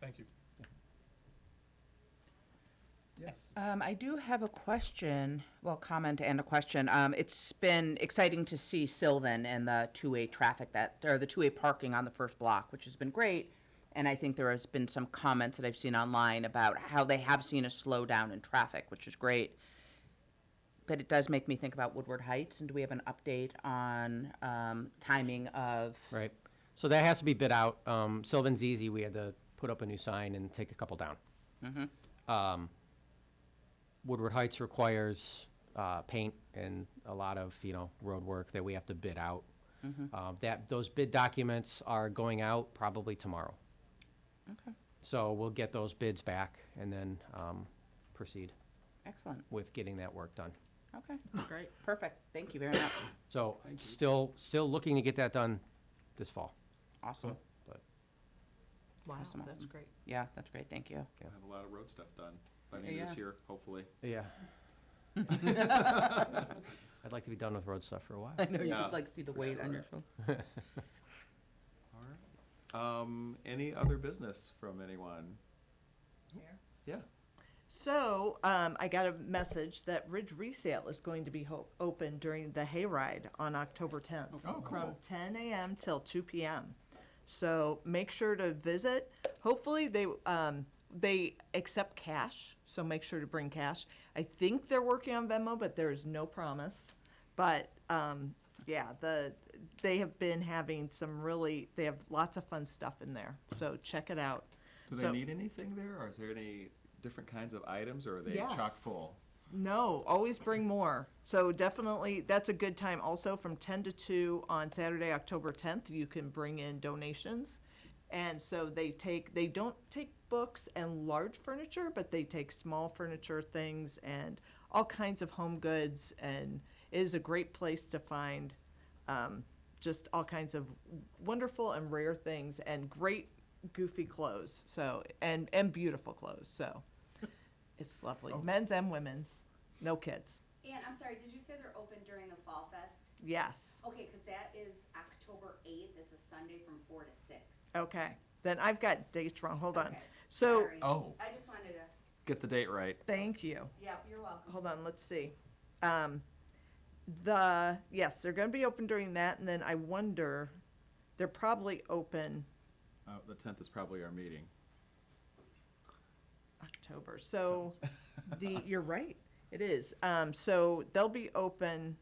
Thank you. Yes. Um, I do have a question, well, comment and a question. Um, it's been exciting to see Sylvan and the two-way traffic that, or the two-way parking on the first block, which has been great. And I think there has been some comments that I've seen online about how they have seen a slowdown in traffic, which is great. But it does make me think about Woodward Heights, and do we have an update on, um, timing of? Right. So that has to be bid out. Um, Sylvan's easy. We had to put up a new sign and take a couple down. Um, Woodward Heights requires, uh, paint and a lot of, you know, road work that we have to bid out. Uh, that, those bid documents are going out probably tomorrow. Okay, So we'll get those bids back and then, um, proceed excellent, with getting that work done. okay. Great. Perfect, thank you very much, So still, still looking to get that done this fall. awesome, Wow, Custom that's item. great. yeah, that's great, thank you. Yeah. Have a lot of road stuff done by the end of Yeah. this year, hopefully. Yeah. I'd like to be done with road stuff for a while. I know you Yeah, could like see the for weight on your sure. phone. All right. Um, any other business from anyone? Yeah. So, um, I got a message that Ridge Resale is going to be ho- open during the hayride on October tenth. Oh, From cool. ten AM till two PM. So make sure to visit. Hopefully they, um, they accept cash, so make sure to bring cash. I think they're working on Venmo, but there is no promise. But, um, yeah, the, they have been having some really, they have lots of fun stuff in there, so check it out. Do they So- need anything there, or is there any different kinds of items, or are they chock Yes. full? No, always bring more. So definitely, that's a good time also from 10 to 2 on Saturday, October 10th. You can bring in donations. And so they take, they don't take books and large furniture, but they take small furniture things and all kinds of home goods. And it is a great place to find um, just all kinds of wonderful and rare things and great goofy clothes. So, and, and beautiful clothes. So it's lovely. Oh. Men's and women's. No kids. And I'm sorry, did you say they're open during the Fall Fest? Yes. Okay, because that is October 8th. It's a Sunday from 4 to 6. Okay. Then I've got dates wrong. Hold on. Okay, So, sorry. Oh. I just wanted to, Get the date right. thank you. yeah, you're welcome. Hold on, let's see. Um, the, yes, they're gonna be open during that, and then I wonder, they're probably open Uh, the tenth is probably our meeting. October, so the, you're right, it is. Um, so they'll be open,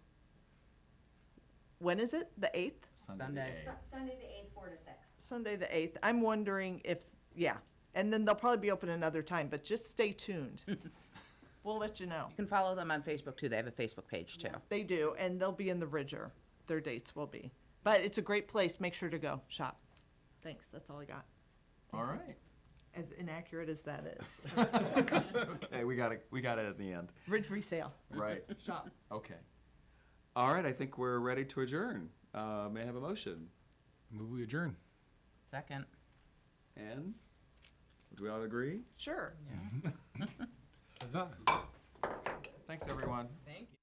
when is it? The eighth? Sunday. Sunday. Su- Sunday the 8th, 4 to 6. Sunday the eighth. I'm wondering if, yeah, and then they'll probably be open another time, but just stay tuned. We'll let you know. You can follow them on Facebook too. They have a Facebook page too. They do, and they'll be in the Ridger. Their dates will be. But it's a great place. Make sure to go shop. Thanks. That's all I got. All right. As inaccurate as that is. Okay, we got it. We got it at the end. Ridge resale. Right. Shop. Okay. All right. I think we're ready to adjourn. Uh, may I have a motion? Move we adjourn. Second. And do we all agree? Sure. Huzzah. Thanks, everyone. Thank you.